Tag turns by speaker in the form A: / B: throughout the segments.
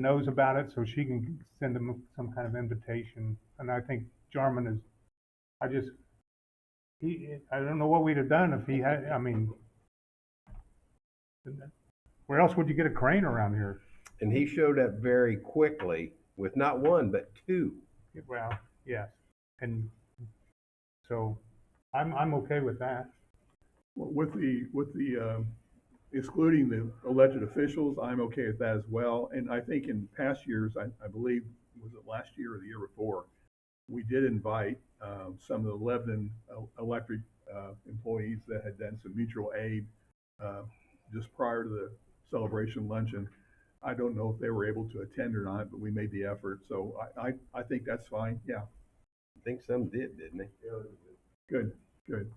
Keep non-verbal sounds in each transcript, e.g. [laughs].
A: knows about it, so she can send them some kind of invitation. And I think Jarman is, I just, he, I don't know what we'd have done if he had, I mean, where else would you get a crane around here?
B: And he showed up very quickly with not one, but two.
A: Well, yes. And so I'm, I'm okay with that.
C: Well, With the, with the, um, excluding the elected officials, I'm okay with that as well. And I think in past years, I, I believe, was it last year or the year before, we did invite um, some of the Lebanon el- electric uh, employees that had done some mutual aid uh, just prior to the celebration luncheon. I don't know if they were able to attend or not, but we made the effort. So I, I, I think that's fine. Yeah,
B: I think some did, didn't he?
C: Good, good.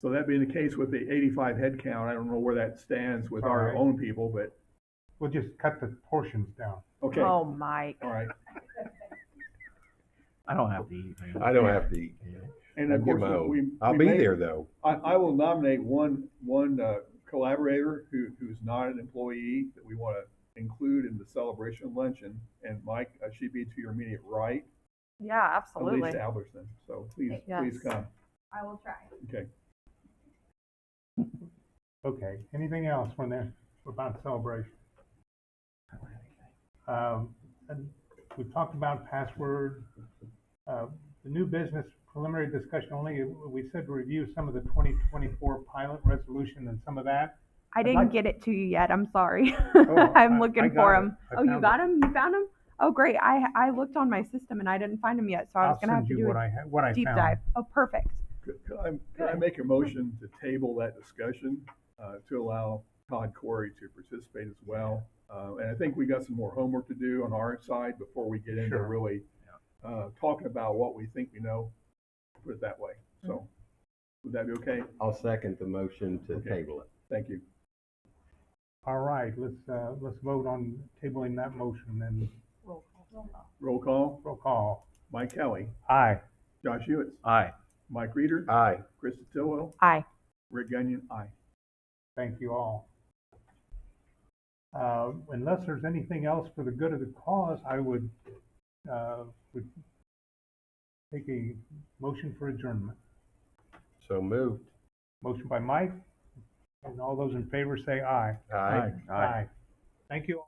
C: So that being the case with the eighty-five head count, I don't know where that stands with our
A: Alright.
C: own people, but,
A: We'll just cut the portions down.
C: okay, all
D: Oh, Mike.
C: right.
E: I don't have to eat, man.
B: I don't have to eat.
C: And
B: I
C: of
B: get
C: course,
B: my
C: we.
B: own. I'll
C: we
B: be
C: may-
B: there though.
C: I, I will nominate one, one uh, collaborator who, who's not an employee that we want to include in the celebration luncheon. And Mike, uh, she'd be to your immediate right,
D: Yeah, absolutely.
C: Elise Albertson. So please,
D: Yes.
C: please come.
F: I will try.
C: Okay.
A: Okay, anything else when there about celebration? Um, and we talked about password, uh, the new business preliminary discussion only, we said review some of the twenty twenty-four pilot resolution and some of that.
D: I
A: like-
D: didn't get it to you yet. I'm sorry.
A: I-
D: [laughs] I'm
A: I
D: looking
A: got
D: for
A: it.
D: them.
A: I
D: Oh, you
A: found
D: got them? You found them? Oh, great. I, I looked on my system and I didn't find them yet, so I was
A: I'll
D: gonna have
A: send
D: to
A: you
D: do
A: what
D: a
A: I, ha- what I
D: deep
A: found.
D: dive. Oh, perfect.
C: Could, could I, could I make a motion to table that discussion, uh, to allow Todd Corey to participate as well? Uh, and I think we got some more homework to do on our side before we get into
A: Sure.
C: really, uh, talking about what we think we know, put it that way. So, would that be okay?
B: I'll second the motion to
C: Okay.
B: table it.
C: Thank you.
A: All right, let's, uh, let's vote on tabling that motion and
C: Roll call,
A: roll call.
C: Mike Kelly,
A: Aye.
C: Josh Hewitt,
E: Aye.
C: Mike Reeder,
B: Aye.
C: Chris Stillwell,
D: Aye.
C: Rick Gunion, aye.
A: Thank you all. Uh, Unless there's anything else for the good of the cause, I would uh, would take a motion for adjournment.
B: So moved.
A: Motion by Mike, and all those in favor say aye.
B: Aye.
A: Thank you.